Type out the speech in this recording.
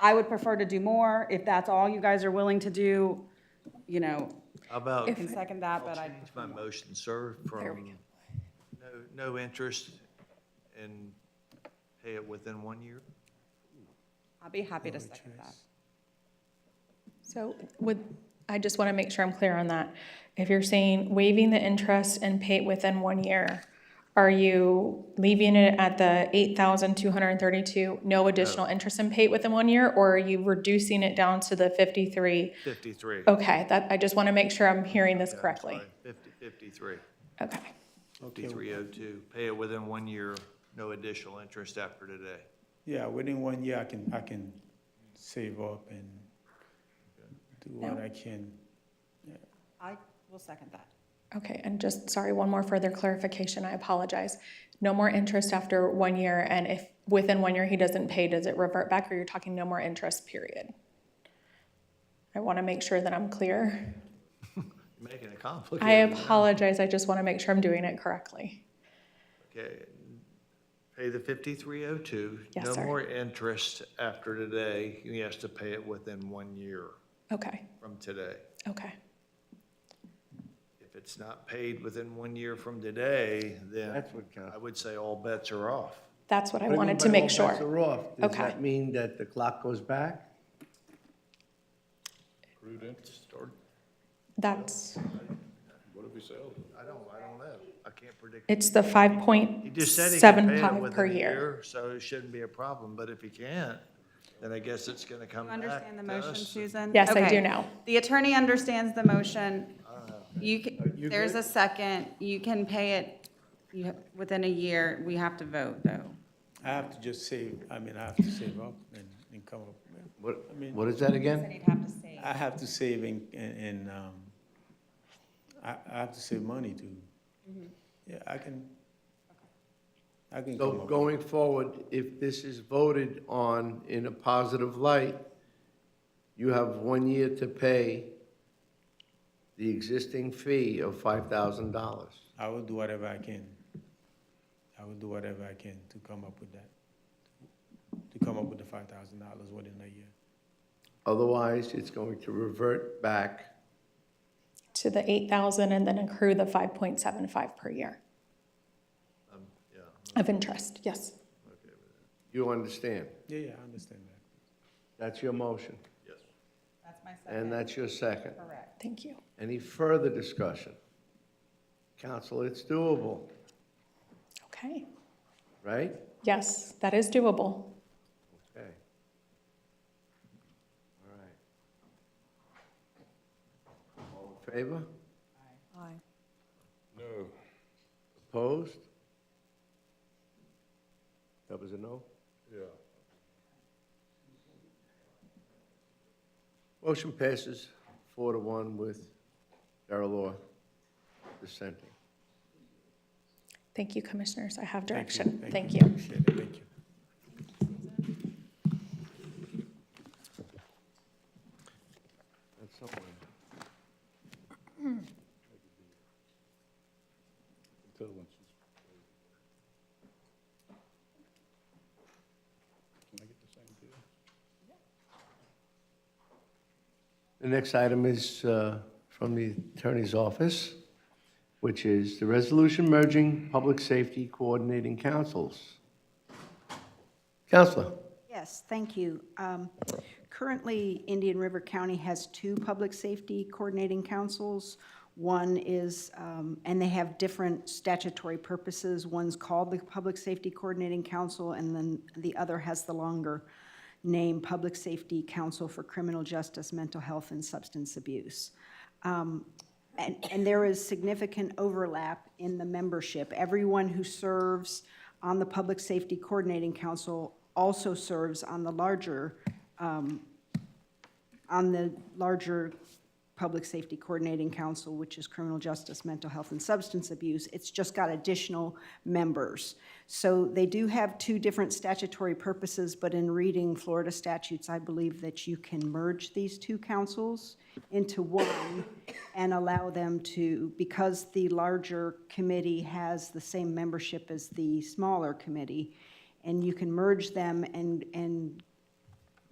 I would prefer to do more. If that's all you guys are willing to do, you know, How about, I can second that, I'll but I, change my motion, sir, from no, no interest and pay it within one year? I'd be happy to second that. So would, I just want to make sure I'm clear on that. If you're saying waiving the interest and pay it within one year, are you leaving it at the eight thousand two hundred and thirty-two, no additional interest and pay it within one year? Or are you reducing it down to the fifty-three? Fifty-three. Okay, that, I just want to make sure I'm hearing this Oh, correctly. Fifty, fifty-three, Okay, fifty-three oh two. Pay it within one year, no additional interest after today. Yeah, within one year, I can, I can save up and do what I can. I will second that. okay, and just, sorry, one more further clarification, I apologize. No more interest after one year, and if within one year he doesn't pay, does it revert back, or you're talking no more interest, period? I want to make sure that I'm clear. You're making it complicated. I apologize, I just want to make sure I'm doing it correctly. Okay, pay the fifty-three oh two. Yes, No sir. more interest after today. He has to pay it within one year Okay, from today. okay, If it's not paid within one year from today, then That's what counts. I would say all bets are off. that's what I What do you wanted mean to by make all bets sure. are off? Does Okay. that mean that the clock goes back? That's, I don't, I don't know. I can't predict. it's the five He point just said he can seven pay it five per within a year. year, so it shouldn't be a problem. But if he can't, then I guess it's going to come You back to us. understand the motion, Susan? Yes, I Okay. do now. The attorney understands the motion. You, ca- there's a second. You can pay it you ha- within a year. We have to vote, though. I have to just save, I mean, I have to save up and, and come up. with- What, I mean- what is that Said again? he'd have to say. I have to save and, and, and, um, I, I have to save money to, Mm-hmm. yeah, I can, I can So come up. with- going forward, if this is voted on in a positive light, you have one year to pay the existing fee of five thousand dollars. I will do whatever I can. I will do whatever I can to come up with that, to come up with the five thousand dollars within a year. Otherwise, it's going to revert back. to the eight thousand and then accrue the five point seven five per year Um, Yeah, of interest, yes. You understand? Yeah, yeah, I understand that. That's your motion, yes. That's my and second. that's your second. Correct. Thank you. Any further discussion? Council, it's doable, Okay, right? yes, that is doable. Okay. All right. All in favor? Aye. No. Opposed? That was a no? Yeah. Motion passes four to one with Darrell Law dissenting. Thank you, commissioners, I have Thank you, direction, thank you. Appreciate it, thank you. That's something. The next item is uh, from the Attorney's Office, which is the resolution merging public safety coordinating councils. Counselor? Yes, thank you. Um, Currently, Indian River County has two public safety coordinating councils. One is, um, and they have different statutory purposes. One's called the Public Safety Coordinating Council, and then the other has the longer name, Public Safety Council for Criminal Justice, Mental Health, and Substance Abuse. And, and there is significant overlap in the membership. Everyone who serves on the Public Safety Coordinating Council also serves on the larger, um, on the larger Public Safety Coordinating Council, which is Criminal Justice, Mental Health, and Substance Abuse. It's just got additional members. So they do have two different statutory purposes, but in reading Florida statutes, I believe that you can merge these two councils into one and allow them to, because the larger committee has the same membership as the smaller committee, and you can merge them and, and